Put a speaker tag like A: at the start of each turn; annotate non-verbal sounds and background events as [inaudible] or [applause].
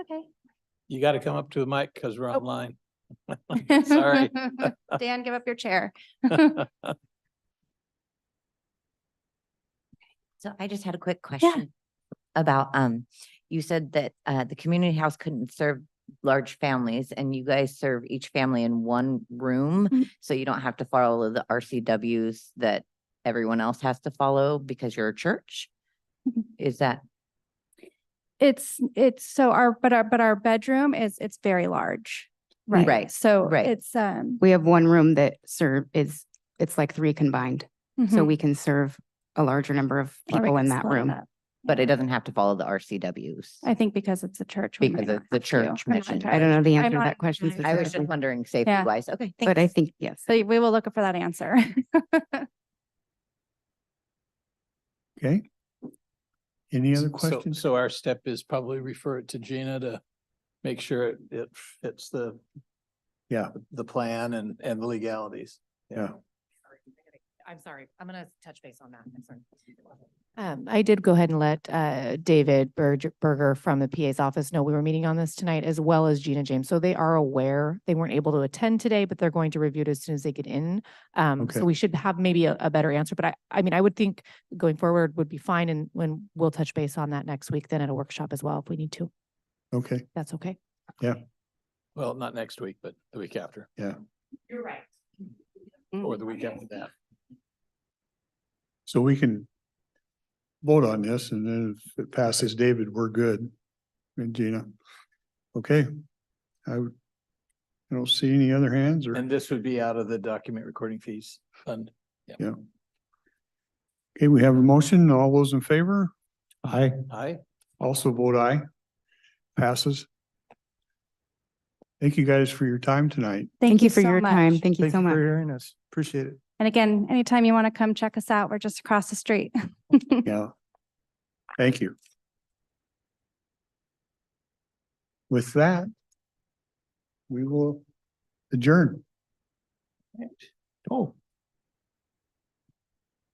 A: Okay.
B: You got to come up to the mic because we're
A: Oh. [laughs]
B: online. Sorry.
A: Dan, give up your chair.
C: So I just had a quick question about, um, you said that, uh, the community house couldn't serve large families and you guys serve each family in one room.
A: Mm.
C: So you don't have to follow the RCWs that everyone else has to follow because you're a church?
A: Mhm.
C: Is that,
A: It's, it's so our, but our, but our bedroom is, it's very large.
D: Right.
C: Right,
A: So
C: right.
A: it's, um.
D: We have one room that serve is, it's like three combined, so
A: mhm,
D: we can serve a larger number of
A: or we
D: people in
A: Oh, can
D: that
A: split it
D: room.
A: up.
C: but it doesn't have to follow the RCWs?
A: I think because it's a church. we might
C: Because
A: not
C: it's the
A: have to.
C: church
A: I'm not
C: mission.
D: I
A: entirely
D: don't know the
A: I'm
D: answer to
A: not
D: that question
A: entirely
C: I was
D: specifically,
C: just wondering safety
A: Yeah.
C: wise. Okay,
D: but I
C: thanks.
D: think, yes.
A: So we will look for that answer. [laughs]
E: Okay. Any
A: [laughs]
E: other
B: So- so-
E: questions?
B: So our step is probably refer it to Gina to make sure it- it fits the.
E: Yeah.
B: The plan and, and the legalities.
E: Yeah.
F: I'm sorry, I'm gonna touch base on that. I'm sorry. Um, I did go ahead and let, uh, David Berg- Berger from the PA's office know we were meeting on this tonight, as well as Gina James. So they are aware. They weren't able to attend today, but they're going to review it as soon as they get in. Um,
E: Okay.
F: so we should have maybe a, a better answer, but I, I mean, I would think going forward would be fine and when we'll touch base on that next week, then at a workshop as well, if we need to.
E: Okay,
F: That's okay.
B: Well, not next week, but the week after
F: You're right.
B: or the week after that.
E: so we can vote on this and then if it passes David, we're good. And Gina, okay. I would, I don't see any other hands or,
B: And this would be out of the document recording fees fund.
E: yeah. Okay, we have a motion. All those in favor? Aye.
B: Aye.
E: Also vote aye. Passes. Thank you guys for your time tonight.
D: Thank you for
A: so
D: your time.
A: much.
D: Thank you so
E: for
D: much.
E: Hearing us, appreciate it.
A: And again, anytime you want to come check us out, we're just across the street.
E: Yeah. Thank you. With that, we will adjourn.